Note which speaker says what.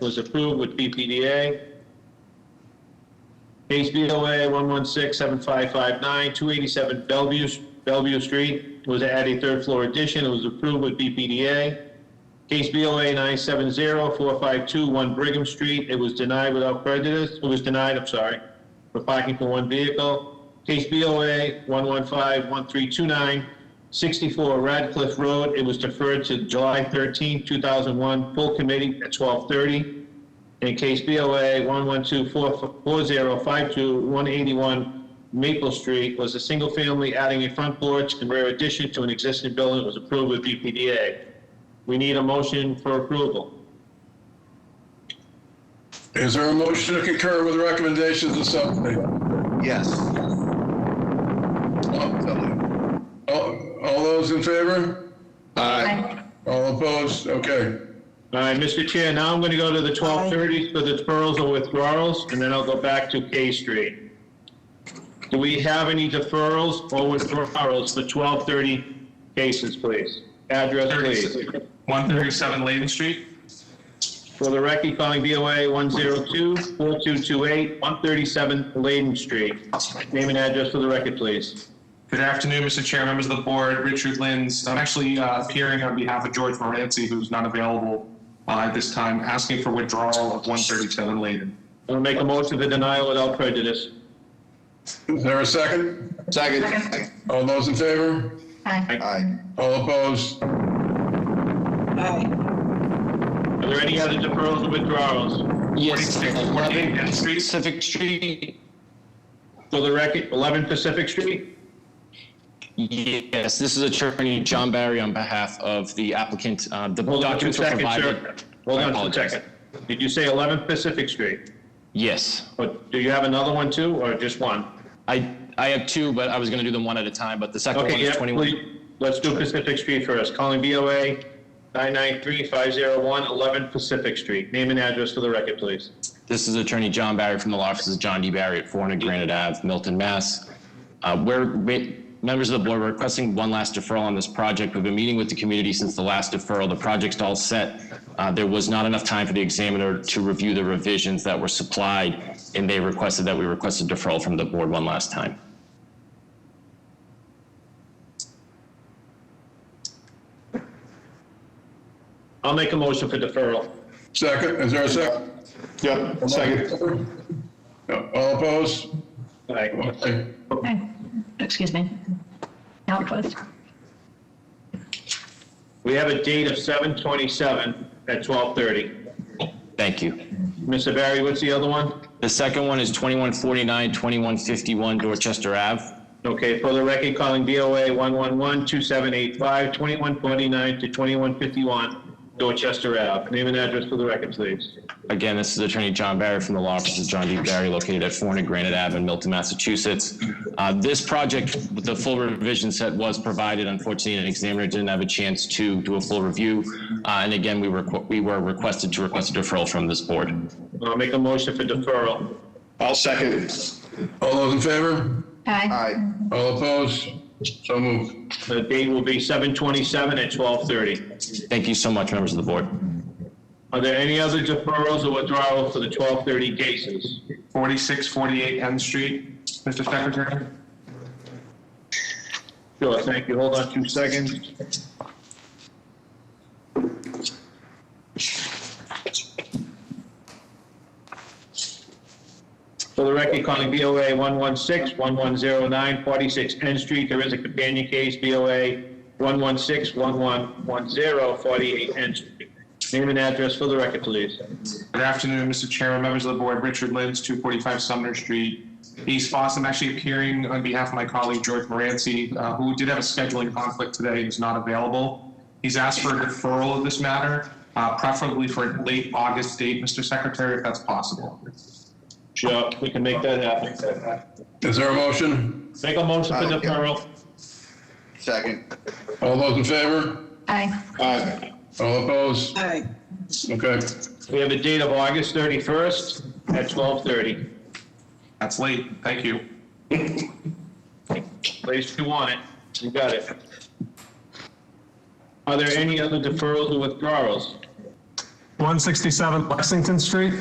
Speaker 1: was approved with BPDA. Case BOA 1167559, 287 Bellevue, Bellevue Street was to add a third floor addition. It was approved with BPDA. Case BOA 9704521 Brigham Street, it was denied without prejudice, it was denied, I'm sorry, for parking for one vehicle. Case BOA 1151329, 64 Radcliffe Road, it was deferred to July 13, 2001, full committee at 12:30. In case BOA 1124052-181 Maple Street was a single family adding a front porch and rear addition to an existing building, it was approved with BPDA. We need a motion for approval.
Speaker 2: Is there a motion to concur with the recommendations of subcommittee?
Speaker 3: Yes.
Speaker 2: All all those in favor?
Speaker 3: Aye.
Speaker 2: All opposed? Okay.
Speaker 1: All right, Mr. Chair, now I'm going to go to the 1230s for the deferrals or withdrawals, and then I'll go back to K Street. Do we have any deferrals or withdrawals for 1230 cases, please? Address, please.
Speaker 4: 137 Layden Street.
Speaker 1: For the record, calling BOA 102-4228, 137 Layden Street. Name and address for the record, please.
Speaker 4: Good afternoon, Mr. Chair, members of the board, Richard Lins. I'm actually uh, appearing on behalf of George Moranci, who's not available uh, at this time, asking for withdrawal of 137 Layden.
Speaker 1: I'm going to make a motion for denial without prejudice.
Speaker 2: Is there a second?
Speaker 3: Second.
Speaker 2: All those in favor?
Speaker 5: Aye.
Speaker 3: Aye.
Speaker 2: All opposed?
Speaker 5: Aye.
Speaker 1: Are there any other deferrals or withdrawals?
Speaker 6: Yes, uh,
Speaker 4: What are they,
Speaker 6: 11
Speaker 4: N Street?
Speaker 6: Pacific Street.
Speaker 1: For the record, 11 Pacific Street?
Speaker 6: Yes, this is Attorney John Barry on behalf of the applicant. Uh, The
Speaker 1: Hold on two
Speaker 6: documents were
Speaker 1: seconds, sir.
Speaker 6: provided.
Speaker 1: Hold
Speaker 6: I
Speaker 1: on two
Speaker 6: apologize.
Speaker 1: seconds. Did you say 11 Pacific Street?
Speaker 6: Yes.
Speaker 1: But do you have another one too, or just one?
Speaker 6: I, I have two, but I was going to do them one at a time, but the second one
Speaker 1: Okay,
Speaker 6: is
Speaker 1: yeah,
Speaker 6: 21.
Speaker 1: please, let's do Pacific Street first. Calling BOA 993-501, 11 Pacific Street. Name and address for the record, please.
Speaker 6: This is Attorney John Barry from the law offices of John D. Barry at 400 Granite Ave, Milton, Mass. Uh, We're, we- members of the board, we're requesting one last deferral on this project. We've been meeting with the community since the last deferral. The project's all set. Uh, There was not enough time for the examiner to review the revisions that were supplied, and they requested that we request a deferral from the board one last time.
Speaker 1: I'll make a motion for deferral.
Speaker 2: Second, is there a second?
Speaker 3: Yep, second.
Speaker 2: All opposed?
Speaker 1: All right.
Speaker 2: Okay.
Speaker 5: Aye. Excuse me. Now opposed.
Speaker 1: We have a date of 7/27 at 12:30.
Speaker 6: Thank you.
Speaker 1: Mr. Barry, what's the other one?
Speaker 6: The second one is 2149, 2151 Dorchester Ave.
Speaker 1: Okay, for the record, calling BOA 111-2785, 2149 to 2151 Dorchester Ave. Name and address for the record, please.
Speaker 6: Again, this is Attorney John Barry from the law offices of John D. Barry, located at 400 Granite Ave in Milton, Massachusetts. Uh, This project, with the full revision set was provided. Unfortunately, an examiner didn't have a chance to do a full review. Uh, And again, we were we were requested to request a deferral from this board.
Speaker 1: I'll make a motion for deferral.
Speaker 3: I'll second.
Speaker 2: All those in favor?
Speaker 5: Aye.
Speaker 3: Aye.
Speaker 2: All opposed? So moved.
Speaker 1: The date will be 7/27 at 12:30.
Speaker 6: Thank you so much, members of the board.
Speaker 1: Are there any other deferrals or withdrawals for the 12:30 cases?
Speaker 4: 4648 N Street, Mr. Secretary.
Speaker 1: Sure, thank you. Hold on two seconds. For the record, calling BOA 116-1109, 46 N Street. There is a companion case, BOA 116-1110, 48 N Street. Name and address for the record, please.
Speaker 4: Good afternoon, Mr. Chairman, members of the board, Richard Lins, 245 Sumner Street, East Boston. I'm actually appearing on behalf of my colleague George Moranci, uh, who did have a scheduling conflict today, and is not available. He's asked for a deferral of this matter, uh, preferably for a late August date, Mr. Secretary, if that's possible.
Speaker 1: Sure, we can make that happen. Uh,
Speaker 2: Is there a motion?
Speaker 1: Make a motion for deferral.
Speaker 3: Second.
Speaker 2: All those in favor?
Speaker 5: Aye.
Speaker 3: Aye.
Speaker 2: All opposed?
Speaker 5: Aye.
Speaker 2: Okay.
Speaker 1: We have a date of August 31st at 12:30.
Speaker 4: That's late. Thank you.
Speaker 1: Place you want it, you got it. Are there any other deferrals or withdrawals?
Speaker 7: 167 Lexington Street.